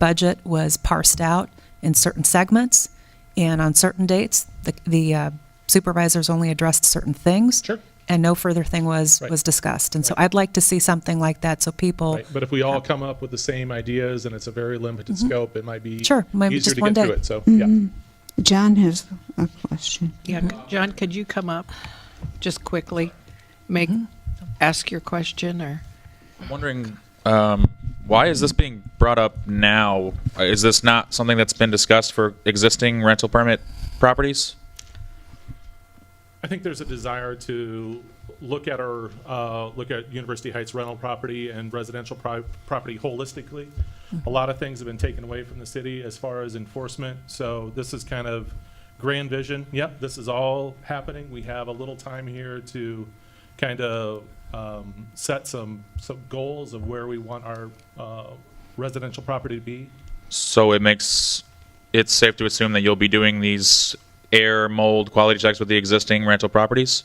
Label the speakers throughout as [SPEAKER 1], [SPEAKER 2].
[SPEAKER 1] budget was parsed out in certain segments, and on certain dates, the, the uh, supervisors only addressed certain things.
[SPEAKER 2] Sure.
[SPEAKER 1] And no further thing was,
[SPEAKER 2] Right.
[SPEAKER 1] was discussed. And so I'd like to see something like that, so people,
[SPEAKER 2] Right, But if we all come up with the same ideas and it's a very limited scope, it might be
[SPEAKER 1] Mm-hmm. Sure, might be
[SPEAKER 2] easier
[SPEAKER 1] just
[SPEAKER 2] to
[SPEAKER 1] one
[SPEAKER 2] get through
[SPEAKER 1] day. Mm-hmm.
[SPEAKER 2] it. So, yeah.
[SPEAKER 3] John has a question.
[SPEAKER 4] Yeah, c- John, could you come up just quickly? Make,
[SPEAKER 1] Mm-hmm.
[SPEAKER 4] ask your question or?
[SPEAKER 5] I'm wondering um, why is this being brought up now? Uh, Is this not something that's been discussed for existing rental permit properties?
[SPEAKER 2] I think there's a desire to look at our, uh, look at University Heights rental property and residential pri- property holistically.
[SPEAKER 1] Mm-hmm.
[SPEAKER 2] A lot of things have been taken away from the city as far as enforcement, so this is kind of grand vision. Yep, this is all happening. We have a little time here to kind of um, set some, some goals of where we want our uh, residential property to be.
[SPEAKER 5] So it makes it safe to assume that you'll be doing these air mold quality checks with the existing rental properties.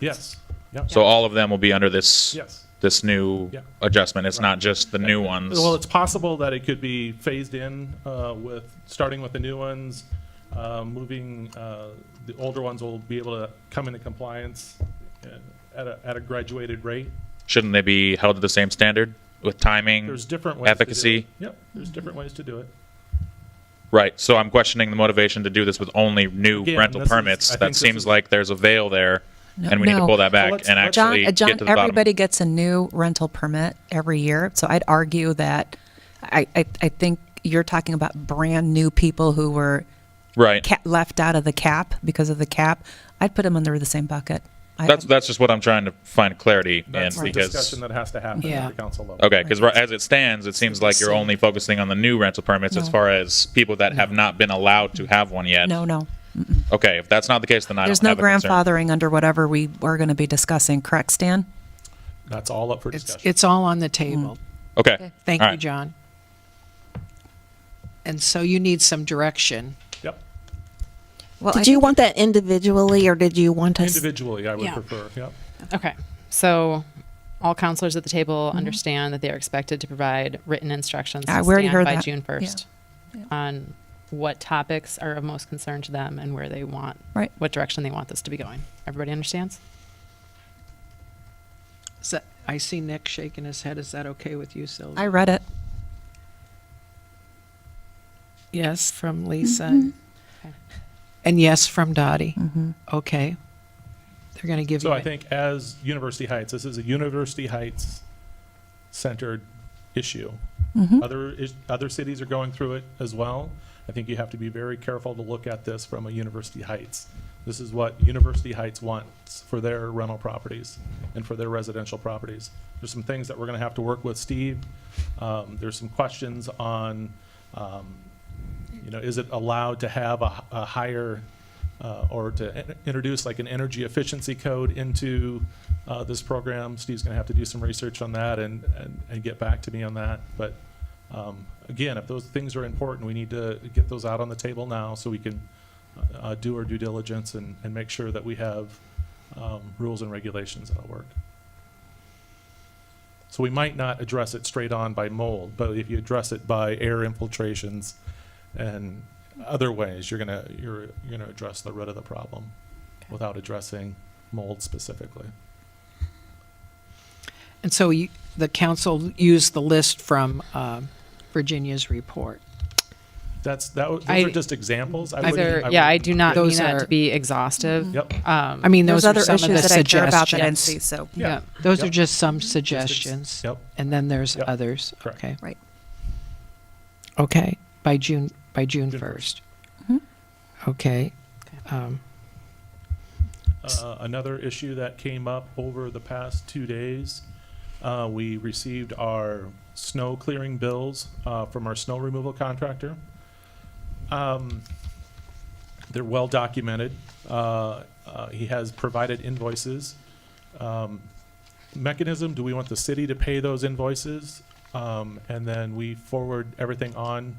[SPEAKER 2] Yes, yep,
[SPEAKER 5] So all of them will be under this
[SPEAKER 2] yes.
[SPEAKER 5] this new
[SPEAKER 2] Yeah.
[SPEAKER 5] adjustment. It's not just the new ones.
[SPEAKER 2] Well, it's possible that it could be phased in uh, with, starting with the new ones, uh, moving, uh, the older ones will be able to come into compliance uh, at a, at a graduated rate.
[SPEAKER 5] Shouldn't they be held to the same standard with timing?
[SPEAKER 2] There's different ways to do it.
[SPEAKER 5] Efficacy.
[SPEAKER 2] Yep, there's different ways to do it.
[SPEAKER 5] Right. So I'm questioning the motivation to do this with only new
[SPEAKER 2] Again,
[SPEAKER 5] rental
[SPEAKER 2] this is- I
[SPEAKER 5] permits.
[SPEAKER 2] think
[SPEAKER 5] That
[SPEAKER 2] this
[SPEAKER 5] seems
[SPEAKER 2] is-
[SPEAKER 5] like there's a veil there,
[SPEAKER 1] No-
[SPEAKER 5] and we need
[SPEAKER 1] no.
[SPEAKER 5] to pull that back
[SPEAKER 2] let's-
[SPEAKER 5] and
[SPEAKER 2] let's-
[SPEAKER 5] actually
[SPEAKER 1] John, uh,
[SPEAKER 5] get
[SPEAKER 1] John,
[SPEAKER 5] to the
[SPEAKER 1] everybody
[SPEAKER 5] bottom.
[SPEAKER 1] gets a new rental permit every year. So I'd argue that, I, I, I think you're talking about brand-new people who were
[SPEAKER 5] Right.
[SPEAKER 1] ca- left out of the cap because of the cap. I'd put them under the same bucket. I-
[SPEAKER 5] That's that's just what I'm trying to find clarity in
[SPEAKER 2] That's the
[SPEAKER 5] because
[SPEAKER 2] discussion that has to happen at
[SPEAKER 4] Yeah.
[SPEAKER 2] the council level.
[SPEAKER 5] okay, because as it stands, it seems like you're only focusing on the new rental permits as
[SPEAKER 1] No.
[SPEAKER 5] far as people that have not been allowed to have one yet.
[SPEAKER 1] No, no.
[SPEAKER 5] Okay, if that's not the case, then I
[SPEAKER 1] There's
[SPEAKER 5] don't
[SPEAKER 1] no
[SPEAKER 5] have a concern.
[SPEAKER 1] grandfathering under whatever we are going to be discussing, correct, Stan?
[SPEAKER 2] That's all up for
[SPEAKER 4] It's,
[SPEAKER 2] discussion.
[SPEAKER 4] it's all on the table.
[SPEAKER 1] Mm-hmm.
[SPEAKER 5] Okay,
[SPEAKER 4] Thank
[SPEAKER 5] All
[SPEAKER 4] you,
[SPEAKER 5] right.
[SPEAKER 4] John. And so you need some direction.
[SPEAKER 2] Yep,
[SPEAKER 1] Well,
[SPEAKER 6] Did you want that individually or did you want us?
[SPEAKER 2] individually, I would
[SPEAKER 7] Yeah.
[SPEAKER 2] prefer, yep.
[SPEAKER 7] Okay. So all counselors at the table
[SPEAKER 1] Mm-hmm.
[SPEAKER 7] understand that they are expected to provide written instructions to
[SPEAKER 1] Ah, we already
[SPEAKER 7] stand
[SPEAKER 1] heard
[SPEAKER 7] by
[SPEAKER 1] that.
[SPEAKER 7] June
[SPEAKER 1] Yeah.
[SPEAKER 7] 1st on what topics are of most concern to them and where they want,
[SPEAKER 1] Right.
[SPEAKER 7] what direction they want this to be going. Everybody understands?
[SPEAKER 4] Is that- I see Nick shaking his head. Is that okay with you, Sylvia?
[SPEAKER 1] I read it.
[SPEAKER 4] Yes, from Lisa. And yes, from Dottie.
[SPEAKER 1] Mm-hmm.
[SPEAKER 4] Okay. They're going to give you.
[SPEAKER 2] So I
[SPEAKER 4] it.
[SPEAKER 2] think as University Heights, this is a University Heights centered issue.
[SPEAKER 4] Mm-hmm.
[SPEAKER 2] Other is, other cities are going through it as well. I think you have to be very careful to look at this from a University Heights. This is what University Heights wants for their rental properties and for their residential properties. There's some things that we're going to have to work with Steve. Um, there's some questions on um, you know, is it allowed to have a, a higher, uh, or to in- introduce like an energy efficiency code into, uh, this program? Steve's gonna have to do some research on that and, and, and get back to me on that. But, um, again, if those things are important, we need to get those out on the table now so we can, uh, do our due diligence and, and make sure that we have, um, rules and regulations that'll work. So we might not address it straight on by mold, but if you address it by air infiltrations and other ways, you're gonna, you're, you're gonna address the root of the problem without addressing mold specifically.
[SPEAKER 4] And so you, the council used the list from um, Virginia's report.
[SPEAKER 2] That's, that, w-
[SPEAKER 7] I-
[SPEAKER 2] those are just examples. I
[SPEAKER 7] These
[SPEAKER 2] wouldn't-
[SPEAKER 7] are- yeah, I
[SPEAKER 2] wouldn't-
[SPEAKER 7] do not mean
[SPEAKER 4] Those
[SPEAKER 7] that
[SPEAKER 4] are-
[SPEAKER 7] to be
[SPEAKER 1] Mm-hmm.
[SPEAKER 7] exhaustive.
[SPEAKER 2] Yep.
[SPEAKER 7] Um,
[SPEAKER 4] I mean,
[SPEAKER 1] There's
[SPEAKER 4] those
[SPEAKER 1] other
[SPEAKER 4] are some of
[SPEAKER 1] issues
[SPEAKER 4] the
[SPEAKER 1] that I care about that I didn't
[SPEAKER 4] suggestions.
[SPEAKER 1] see, so.
[SPEAKER 2] Yeah.
[SPEAKER 4] Yeah, those are
[SPEAKER 2] Yep.
[SPEAKER 4] just some suggestions.
[SPEAKER 2] Yep.
[SPEAKER 4] And then there's
[SPEAKER 2] Yep.
[SPEAKER 4] others.
[SPEAKER 2] Correct.
[SPEAKER 4] Okay.
[SPEAKER 1] Right.
[SPEAKER 4] Okay, by June, by June
[SPEAKER 2] June
[SPEAKER 4] first. Okay. Um,
[SPEAKER 2] Uh, another issue that came up over the past two days, uh, we received our snow clearing bills uh, from our snow removal contractor. Um, they're well documented. Uh, uh, he has provided invoices. Um, mechanism: Do we want the city to pay those invoices, um, and then we forward everything on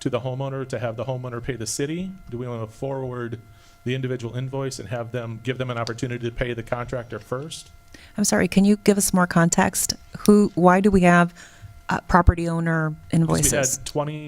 [SPEAKER 2] to the homeowner to have the homeowner pay the city? Do we want to forward the individual invoice and have them give them an opportunity to pay the contractor first?
[SPEAKER 1] I'm sorry, can you give us more context? Who, why do we have uh, property owner
[SPEAKER 2] We
[SPEAKER 1] invoices.
[SPEAKER 2] had 20